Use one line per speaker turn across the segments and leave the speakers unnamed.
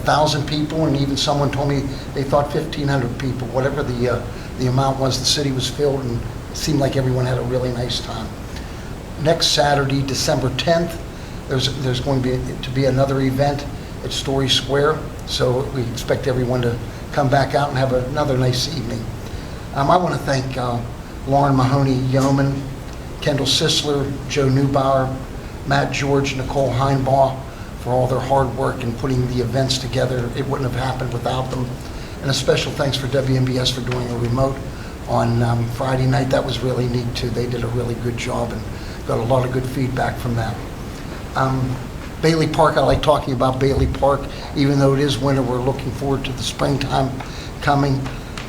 1,000 people, and even someone told me they thought 1,500 people, whatever the, uh, the amount was, the city was filled, and it seemed like everyone had a really nice time. Next Saturday, December 10th, there's, there's going to be, to be another event at Story Square, so we expect everyone to come back out and have another nice evening. Um, I want to thank uh, Lauren Mahoney Yeoman, Kendall Sisler, Joe Newbauer, Matt George, Nicole Heinbaugh for all their hard work in putting the events together. It wouldn't have happened without them. And a special thanks for WMBS for doing a remote on um, Friday night. That was really neat, too. They did a really good job and got a lot of good feedback from that. Um, Bailey Park, I like talking about Bailey Park, even though it is winter, we're looking forward to the springtime coming.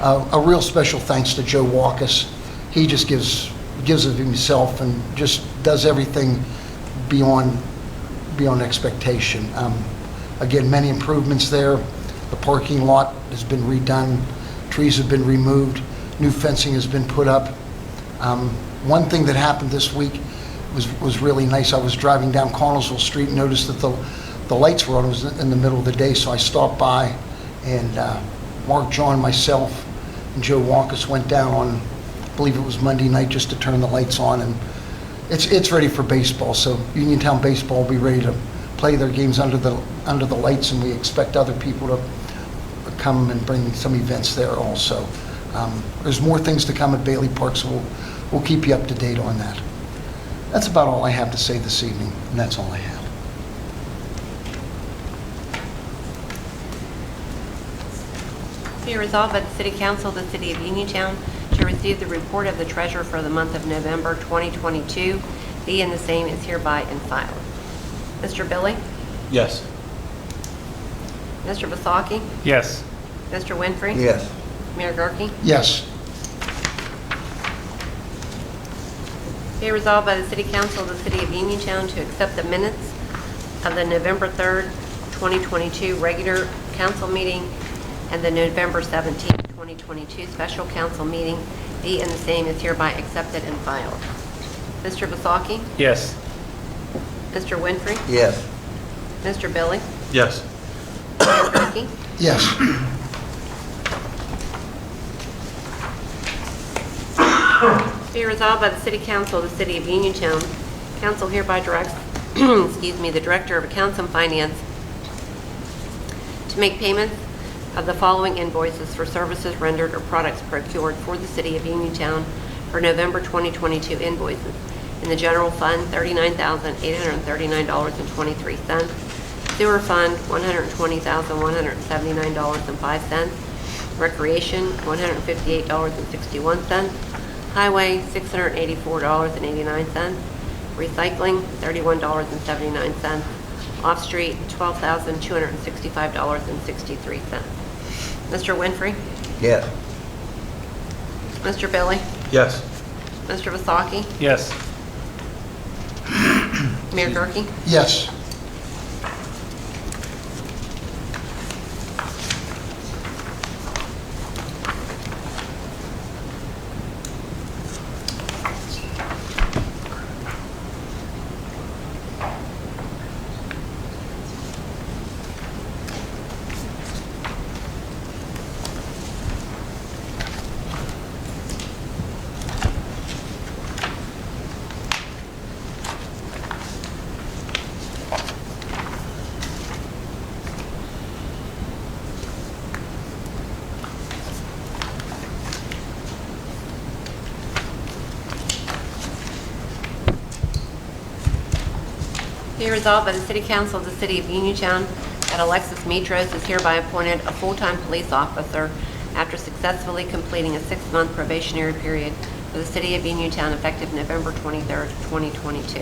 Uh, A real special thanks to Joe Walkus. He just gives, gives of himself and just does everything beyond, beyond expectation. Um, Again, many improvements there. The parking lot has been redone, trees have been removed, new fencing has been put up. Um, One thing that happened this week was, was really nice. I was driving down Connellsville Street, and noticed that the, the lights were on, it was in the middle of the day, so I stopped by, and uh, Mark, John, myself, and Joe Walkus went down on, I believe it was Monday night, just to turn the lights on, and it's, it's ready for baseball, so Uniontown Baseball will be ready to play their games under the, under the lights, and we expect other people to come and bring some events there also. Um, There's more things to come at Bailey Park, so we'll, we'll keep you up to date on that. That's about all I have to say this evening, and that's all I have.
Be resolved by the City Council of the City of Uniontown to receive the report of the treasurer for the month of November 2022, be and the same is hereby and filed. Mr. Billy?
Yes.
Mr. Vasaki?
Yes.
Mr. Winfrey?
Yes.
Mayor Gurke?
Yes,
Be resolved by the City Council of the City of Uniontown to accept the minutes of the November 3rd, 2022 regular council meeting and the November 17th, 2022 special council meeting, be and the same is hereby accepted and filed. Mr. Vasaki?
Yes.
Mr. Winfrey?
Yes.
Mr. Billy?
Yes.
Mayor Gurke?
yes.
Be resolved by the City Council of the City of Uniontown. Council hereby directs, excuse me, the Director of Accounts and Finance to make payments of the following invoices for services rendered or products procured for the City of Uniontown for November 2022 invoices. In the General Fund, $39,839.23. Sewer Fund, $120,179.05. Recreation, $158.61. Highway, $684.89. Recycling, $31.79. Off-street, $12,265.63. Mr. Winfrey?
Yes.
Mr. Billy?
Yes.
Mr. Vasaki?
Yes.
Mayor Gurke?
Yes.
Be resolved by the City Council of the City of Uniontown that Alexis Metros is hereby appointed a full-time police officer after successfully completing a six-month probationary period for the City of Uniontown effective November 23rd, 2022.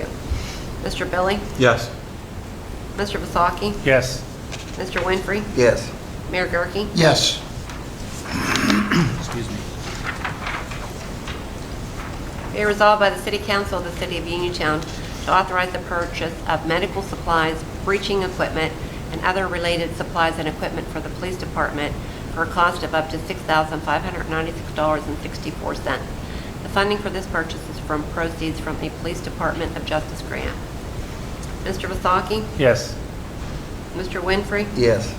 Mr. Billy?
Yes.
Mr. Vasaki?
Yes.
Mr. Winfrey?
Yes.
Mayor Gurke?
Yes.
Excuse me.
Be resolved by the City Council of the City of Uniontown to authorize the purchase of medical supplies, breaching equipment, and other related supplies and equipment for the police department for a cost of up to $6,596.64. The funding for this purchase is from proceeds from a Police Department of Justice grant. Mr. Vasaki?
Yes.
Mr. Winfrey?
Yes.